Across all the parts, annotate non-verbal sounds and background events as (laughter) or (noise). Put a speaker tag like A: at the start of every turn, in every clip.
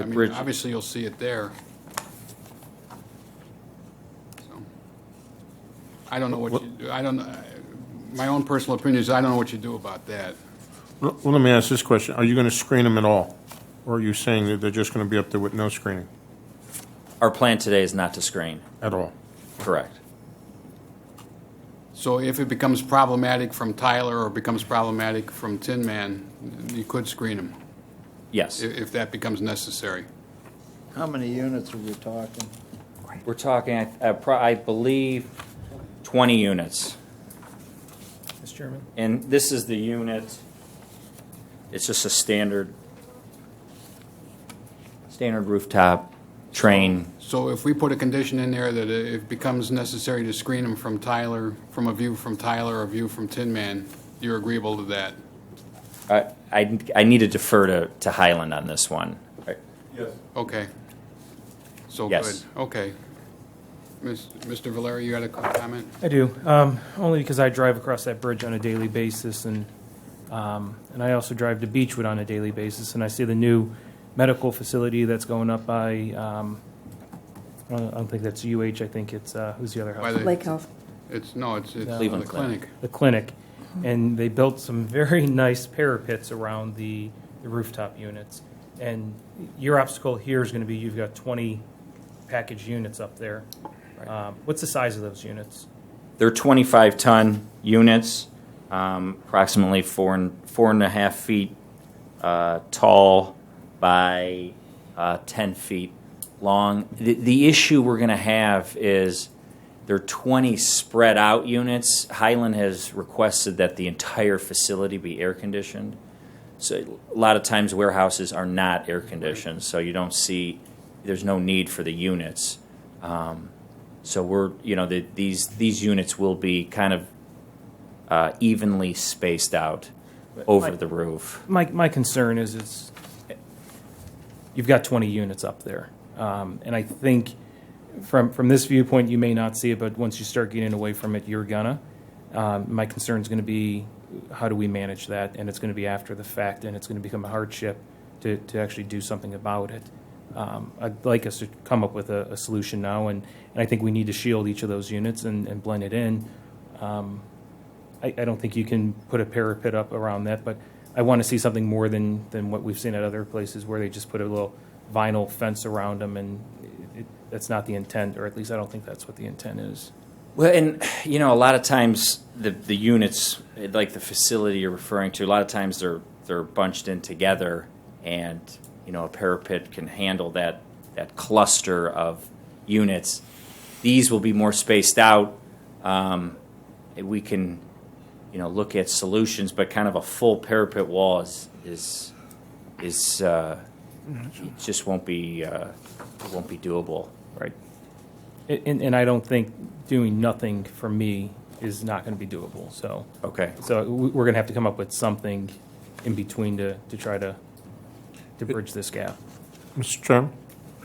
A: The
B: I mean,
A: bridge,
B: Obviously, you'll see it there. So, I don't know what you, I don't, uh, my own personal opinion is I don't know what you do about that.
C: Well, let me ask this question. Are you going to screen them at all? Or are you saying that they're just going to be up there with no screening
D: Our plan today is not to screen.
C: at all?
D: Correct.
B: So if it becomes problematic from Tyler or becomes problematic from Tin Man, you could screen them
D: Yes.
B: if, if that becomes necessary.
E: How many units are we talking?
D: We're talking, I- I pro- I believe, 20 units.
F: Mr. Chairman?
D: And this is the unit, it's just a standard, standard rooftop train.
B: So if we put a condition in there that it becomes necessary to screen them from Tyler, from a view from Tyler or a view from Tin Man, you're agreeable to that?
D: I, I I need to defer to, to Highland on this one.
B: Okay. So good.
D: Yes.
B: Okay. Mis- Mr. Valeri, you had a co- comment?
F: I do, um, only because I drive across that bridge on a daily basis, and, um, and I also drive to Beechwood on a daily basis, and I see the new medical facility that's going up by, um, I don't I don't think that's UH, I think it's, uh, who's the other
B: By
F: house?
B: the-
G: Lake Health.
B: It's, no, it's, it's
D: Cleveland
B: the clinic.
F: The clinic, and they built some very (laughs) nice parapets around the the rooftop units. And your obstacle here is gonna be, you've got twenty package units up there. Um, What's the size of those units?
D: They're 25-ton units, um, approximately four and, four and a half feet uh, tall by uh, 10 feet long. The, the issue we're going to have is there are 20 spread out units. Highland has requested that the entire facility be air conditioned. So a lot of times warehouses are not air conditioned, so you don't see, there's no need for the units. Um, so we're, you know, the, these, these units will be kind of uh, evenly spaced out over
F: Mike-
D: the roof.
F: My, my concern is it's, you've got 20 units up there. Um, And I think from, from this viewpoint, you may not see it, but once you start getting away from it, you're gonna. Um, My concern's gonna be, how do we manage that? And it's gonna be after the fact, and it's gonna become a hardship to, to actually do something about it. Um, I'd like us to come up with a, a solution now, and, and I think we need to shield each of those units and, and blend it in. I, I don't think you can put a parapet up around that, but I want to see something more than, than what we've seen at other places where they just put a little vinyl fence around them, and it, that's not the intent, or at least I don't think that's what the intent is.
D: Well, and you know, a lot of times the the units, like the facility you're referring to, a lot of times they're they're bunched in together, and you know, a parapet can handle that that cluster of units. These will be more spaced out. Um, we can, you know, look at solutions, but kind of a full parapet wall is is is uh, it just won't be uh, won't be doable.
F: Right. A- And, and I don't think doing nothing for me is not going to be doable, so.
D: Okay.
F: So we- we're going to have to come up with something in between to, to try to, to bridge this gap.
C: Mr. Chairman,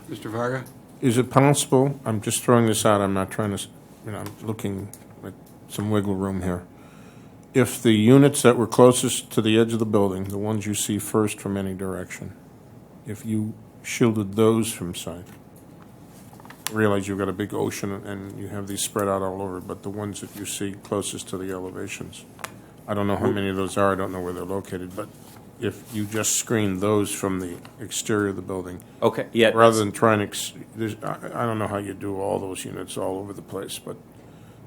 B: Mr. Varga?
C: is it possible, I'm just throwing this out, I'm not trying to, s- you know, I'm looking at some wiggle room here. If the units that were closest to the edge of the building, the ones you see first from any direction, if you shielded those from sight, realize you've got a big ocean and you have these spread out all over, but the ones that you see closest to the elevations, I don't know how many of those are, I don't know where they're located, but if you just screen those from the exterior of the building,
D: Okay. Yeah.
C: rather than trying to, ex- there's, I, I don't know how you do all those units all over the place, but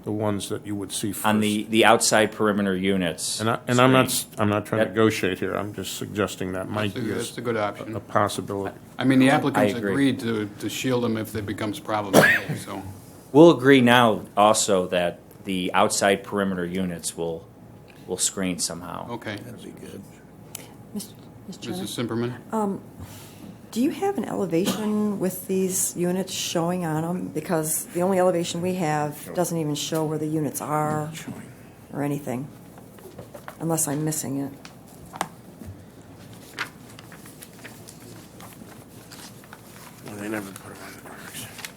C: the ones that you would see first.
D: on the, the outside perimeter units.
C: And I, and I'm not,
D: Screen.
C: s- I'm not trying to
D: That-
C: negotiate here, I'm just suggesting that might be a
B: That's
C: s-
B: a good option.
C: a possibility.
B: I mean, the applicants
D: I agree.
B: agreed to, to shield them if it becomes problematic, so.
D: We'll agree now also that the outside perimeter units will, will screen somehow.
B: Okay.
G: Mr. Mr. Chairman,
B: Mrs. Simperman?
G: do you have an elevation with these units showing on them? Because the only elevation we have doesn't even show where the units are or anything, unless I'm missing it.
C: Well, they never put them on the